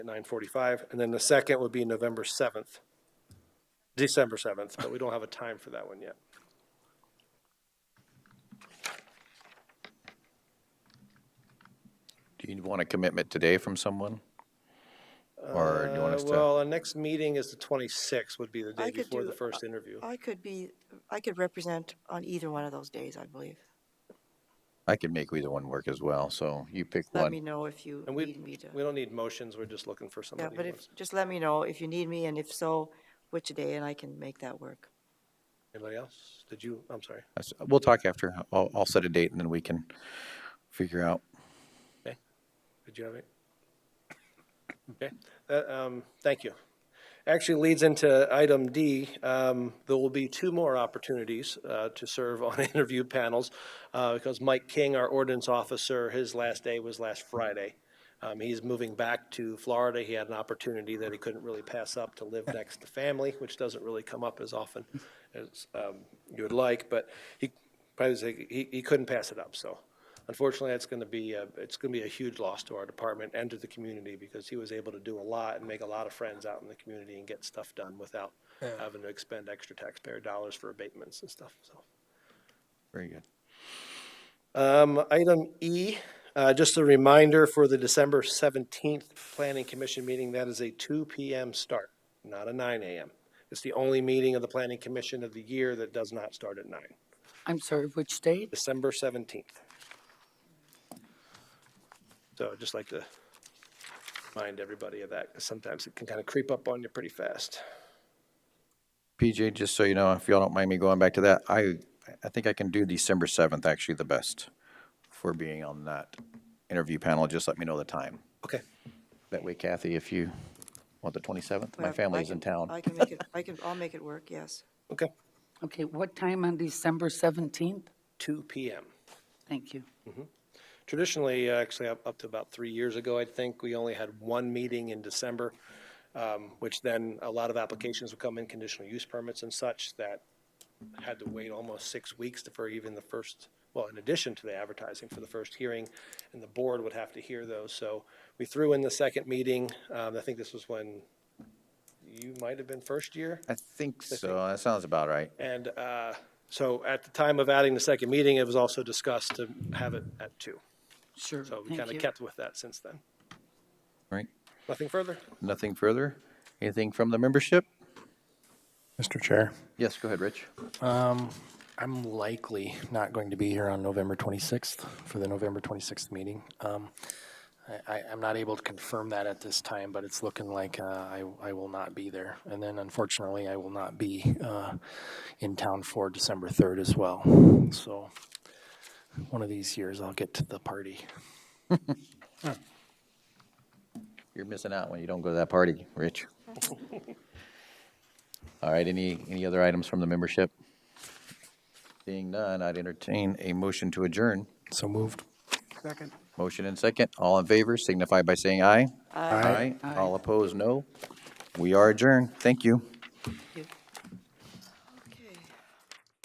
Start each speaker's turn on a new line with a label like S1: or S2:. S1: at nine forty-five, and then the second would be November seventh, December seventh, but we don't have a time for that one yet.
S2: Do you want a commitment today from someone? Or do you want
S1: Uh,
S2: us to,
S1: Well, our next meeting is the twenty-sixth, would be the
S3: I
S1: day
S3: could
S1: before
S3: do-
S1: the first interview.
S3: I could be, I could represent on either one of those days, I believe.
S2: I can make either one work as well, so you pick
S3: Let me
S2: one.
S3: know if you
S1: And
S3: need
S1: we,
S3: me to.
S1: we don't need motions, we're just looking for
S3: Yeah,
S1: somebody.
S3: but
S1: who
S3: if,
S1: wants-
S3: just let me know if you need me and if so, which day and I can make that work.
S1: Anybody else? Did you, I'm sorry.
S2: That's- We'll talk after. I'll, I'll set a date and then we can figure out.
S1: Did you have it? Okay, that, um, thank you. Actually leads into item D. Um, there will be two more opportunities, uh, to serve on interview panels. Uh, because Mike King, our ordinance officer, his last day was last Friday. Um, he's moving back to Florida. He had an opportunity that he couldn't really pass up to live next to family, which doesn't really come up as often as, um, you would like, but he, probably say he, he couldn't pass it up, so. Unfortunately, that's going to be, a- it's going to be a huge loss to our department and to the community because he was able to do a lot and make a lot of friends out in the community and get stuff done without having to expend extra taxpayer dollars for abatements and stuff, so.
S2: Very good.
S1: Um, item E, uh, just a reminder for the December seventeenth Planning Commission meeting, that is a two PM start, not a nine AM. It's the only meeting of the Planning Commission of the year that does not start at nine,
S4: I'm sorry, which date?
S1: December seventeenth. So I'd just like to remind everybody of that, because sometimes it can kind of creep up on you pretty fast.
S2: PJ, just so you know, if y'all don't mind me going back to that, I, I think I can do December seventh actually the best for being on that interview panel. Just let me know the time.
S1: Okay.
S2: That way Kathy, if you want the twenty-seventh, my
S3: Whatever. I
S2: family's in
S3: can-
S2: town.
S3: I can make it, I can, I'll make it work, yes.
S1: Okay,
S4: Okay, what time on December 17th?
S1: two PM.
S4: Thank you.
S1: Traditionally, uh, actually, up up to about three years ago, I think, we only had one meeting in December, um, which then a lot of applications would come in, conditional use permits and such, that had to wait almost six weeks for even the first, well, in addition to the advertising for the first hearing, and the board would have to hear those. So we threw in the second meeting. Um, I think this was when you might have been first year.
S2: I think so. That sounds about right.
S1: And uh, so at the time of adding the second meeting, it was also discussed to have it at two.
S4: Sure,
S1: So we kind
S4: thank
S1: of
S4: you.
S1: kept with that since then.
S2: Right?
S1: Nothing further?
S2: Nothing further? Anything from the membership?
S5: Mr. Chair,
S2: Yes, go ahead, Rich.
S5: I'm likely not going to be here on November 26th for the November 26th meeting. Um, I, I- I'm not able to confirm that at this time, but it's looking like uh, I, I will not be there. And then unfortunately, I will not be uh, in town for December 3rd as well. So one of these years, I'll get to the party.
S2: You're missing out when you don't go to that party, Rich. All right, any, any other items from the membership? Seeing none, I'd entertain a motion to adjourn.
S5: So moved.
S2: Motion and second. All in favor signify by saying aye.
S5: Aye.
S2: All opposed, no. We are adjourned. Thank you.
S3: Thank you.